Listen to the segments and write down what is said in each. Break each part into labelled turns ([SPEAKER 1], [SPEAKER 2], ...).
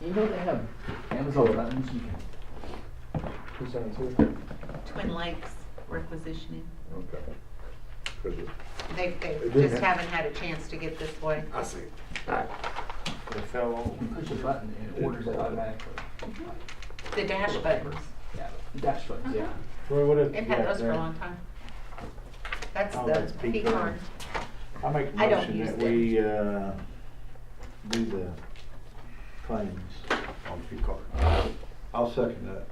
[SPEAKER 1] You know they have Amazon buttons you can.
[SPEAKER 2] Who's on two?
[SPEAKER 3] Twin Lakes requisitioning.
[SPEAKER 2] Okay. Could be.
[SPEAKER 3] They, they
[SPEAKER 2] They didn't
[SPEAKER 3] just
[SPEAKER 2] have-
[SPEAKER 3] haven't had a chance to get this way.
[SPEAKER 2] I see.
[SPEAKER 4] They fell over.
[SPEAKER 1] You push a button and it orders it automatically.
[SPEAKER 3] The dash buttons, Uh-huh.
[SPEAKER 1] Yeah, dash buttons, yeah.
[SPEAKER 4] Troy, what if?
[SPEAKER 3] they've had those for a long time. That's
[SPEAKER 4] Oh, that's
[SPEAKER 3] the
[SPEAKER 4] pecan.
[SPEAKER 3] P card.
[SPEAKER 4] I make a
[SPEAKER 3] I don't
[SPEAKER 4] motion
[SPEAKER 3] use
[SPEAKER 4] that
[SPEAKER 3] them.
[SPEAKER 4] we, uh, do the claims on P card.
[SPEAKER 5] I'll second that.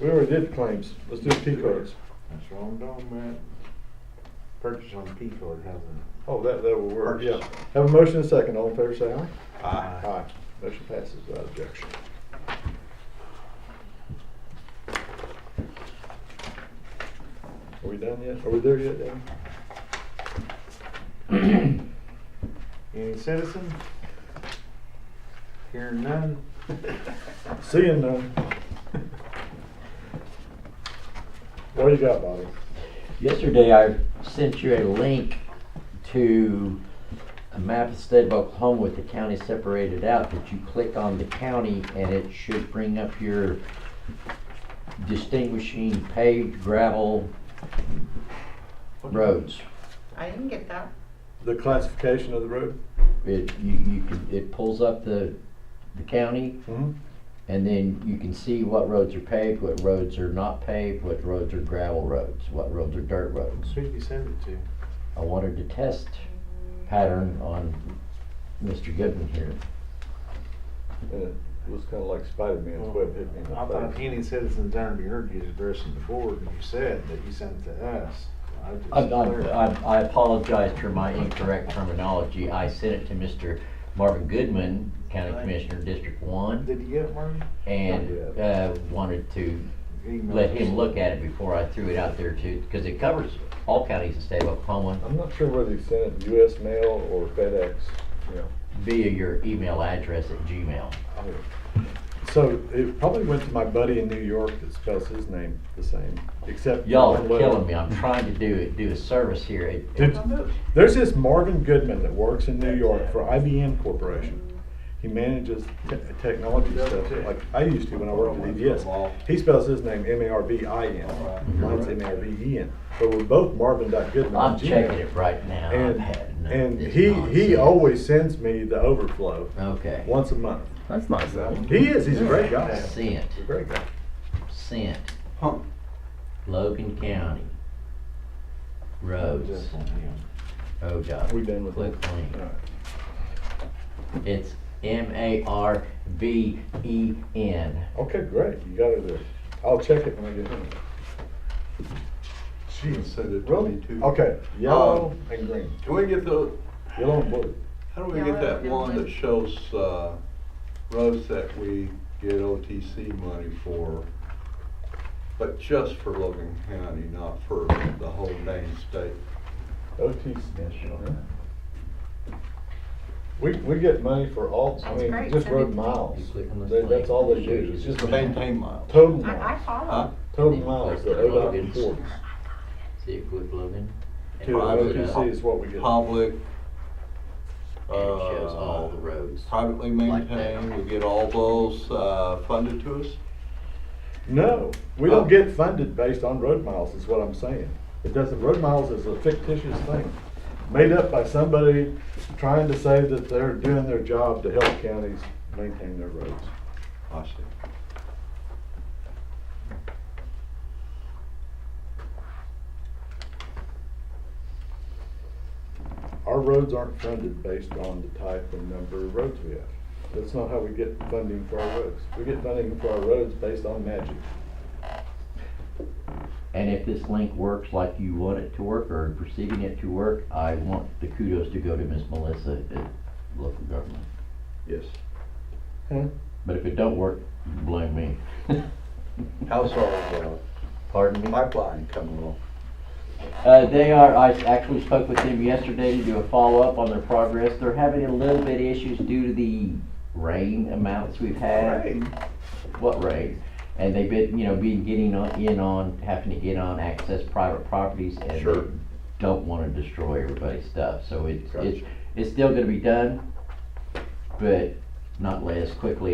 [SPEAKER 2] We already did claims. Let's do P cards.
[SPEAKER 4] That's wrong, dog, man. Purchase on P card, hasn't
[SPEAKER 2] Oh, that, that will work, yeah.
[SPEAKER 4] Purchase.
[SPEAKER 2] Have a motion and a second. All in favor, say aye.
[SPEAKER 4] it? Aye.
[SPEAKER 2] Motion passes without objection. Are we done yet? Are we there yet, Dan?
[SPEAKER 4] Any citizen? Hearing none?
[SPEAKER 2] Seeing none. What do you got, Bobby?
[SPEAKER 6] Yesterday, I sent you a link to a map of the state of Oklahoma with the county separated out, that you click on the county and it should bring up your distinguishing paved gravel roads.
[SPEAKER 3] I didn't get that.
[SPEAKER 2] The classification of the road?
[SPEAKER 6] It, you, you can, it pulls up the, the county
[SPEAKER 2] Mm-hmm.
[SPEAKER 6] and then you can see what roads are paved, what roads are not paved, what roads are gravel roads, what roads are dirt roads.
[SPEAKER 4] Who'd you send it to?
[SPEAKER 6] I wanted to test pattern on Mr. Goodman here.
[SPEAKER 2] And it was kinda like Spider-Man's web hit me in
[SPEAKER 4] I
[SPEAKER 2] the
[SPEAKER 4] thought
[SPEAKER 2] face.
[SPEAKER 4] any citizen turned to your addressing before, and you said that you sent it to us. I just-
[SPEAKER 6] I, I, I- I apologize for my incorrect terminology. I sent it to Mr. Marvin Goodman, County
[SPEAKER 4] Right.
[SPEAKER 6] Commissioner, District One,
[SPEAKER 4] Did you get it, Marty?
[SPEAKER 6] and, uh, wanted to
[SPEAKER 4] Email
[SPEAKER 6] let
[SPEAKER 4] us.
[SPEAKER 6] him look at it before I threw it out there too, because it covers all counties in the state of Oklahoma
[SPEAKER 2] I'm not sure whether he sent it US mail or FedEx, you know.
[SPEAKER 6] via your email address at Gmail.
[SPEAKER 2] So it probably went to my buddy in New York that spells his name the same, except.
[SPEAKER 6] Y'all are
[SPEAKER 2] one letter.
[SPEAKER 6] killing me. I'm trying to do it, do a service here. It- it-
[SPEAKER 2] Did- There's this Marvin Goodman that works in New York for IBM Corporation. He manages te- technology stuff like I used to when I worked at EDS. He spells his name M A R V I N. Mine's M A R V E N. But we're both Marvin dot Goodman. on
[SPEAKER 6] Mm-hmm. I'm
[SPEAKER 2] Gmail.
[SPEAKER 6] checking it right now. I've
[SPEAKER 2] And,
[SPEAKER 6] had enough of
[SPEAKER 2] and
[SPEAKER 6] this
[SPEAKER 2] he, he
[SPEAKER 6] nonsense.
[SPEAKER 2] always sends me the overflow
[SPEAKER 6] Okay.
[SPEAKER 2] once a month.
[SPEAKER 1] That's nice though.
[SPEAKER 2] He is, he's a great guy. He's
[SPEAKER 6] Sent,
[SPEAKER 2] a great guy.
[SPEAKER 6] sent,
[SPEAKER 5] Huh.
[SPEAKER 6] Logan County. Roads, Oh,
[SPEAKER 4] Just on him.
[SPEAKER 6] ODOT.
[SPEAKER 2] We done with
[SPEAKER 6] Click
[SPEAKER 2] that?
[SPEAKER 6] link.
[SPEAKER 2] All right.
[SPEAKER 6] It's M A R V E N.
[SPEAKER 2] Okay, great, you got it there. I'll check it when I get home.
[SPEAKER 5] She said it
[SPEAKER 2] Really?
[SPEAKER 5] twenty-two.
[SPEAKER 2] Okay, yellow and green,
[SPEAKER 5] Um, Can we get the,
[SPEAKER 2] yellow and blue.
[SPEAKER 5] how do we
[SPEAKER 3] Yeah,
[SPEAKER 5] get
[SPEAKER 3] I
[SPEAKER 5] that
[SPEAKER 3] don't
[SPEAKER 5] one
[SPEAKER 3] know.
[SPEAKER 5] that shows, uh, roads that we get OTC money for? But just for Logan County, not for the whole dang state.
[SPEAKER 2] OT We, we get money for all, I
[SPEAKER 3] That's
[SPEAKER 2] mean,
[SPEAKER 3] great,
[SPEAKER 2] just
[SPEAKER 3] send it to
[SPEAKER 2] road
[SPEAKER 3] me.
[SPEAKER 2] miles.
[SPEAKER 6] You click on this
[SPEAKER 2] That- That's
[SPEAKER 6] link.
[SPEAKER 2] all they do, it's just
[SPEAKER 5] To maintain miles.
[SPEAKER 2] total
[SPEAKER 3] I, I
[SPEAKER 2] miles,
[SPEAKER 5] Huh?
[SPEAKER 3] follow.
[SPEAKER 2] total miles that ODOT records.
[SPEAKER 6] See it click Logan? And
[SPEAKER 2] To
[SPEAKER 6] pop it up.
[SPEAKER 2] OTC is what we get.
[SPEAKER 6] uh,
[SPEAKER 5] Public.
[SPEAKER 6] And it shows all the
[SPEAKER 5] uh,
[SPEAKER 6] roads.
[SPEAKER 5] Privately
[SPEAKER 6] Like that.
[SPEAKER 5] maintained, we get all those, uh, funded to us?
[SPEAKER 2] No, we don't
[SPEAKER 5] Oh.
[SPEAKER 2] get funded based on road miles, is what I'm saying. It doesn't, road miles is a fictitious thing, made up by somebody trying to say that they're doing their job to help counties maintain their roads.
[SPEAKER 5] I see.
[SPEAKER 2] Our roads aren't funded based on the type and number of roads we have. That's not how we get funding for our roads. We get funding for our roads based on magic.
[SPEAKER 6] And if this link works like you want it to work or perceiving it to work, I want the kudos to go to Miss Melissa at local government.
[SPEAKER 5] Yes.
[SPEAKER 6] But if it don't work, you can blame me.
[SPEAKER 5] How's our, uh,
[SPEAKER 6] Pardon me?
[SPEAKER 5] pipeline coming along?
[SPEAKER 6] Uh, they are, I actually spoke with them yesterday to do a follow-up on their progress. They're having a little bit of issues due to the rain amounts we've had. What rain? And they've been, you know, been getting on, in on, having to get on access private properties and they
[SPEAKER 5] Sure.
[SPEAKER 6] don't wanna destroy everybody's stuff, so it's,
[SPEAKER 5] Gotcha.
[SPEAKER 6] it's, it's still gonna be done, but not as quickly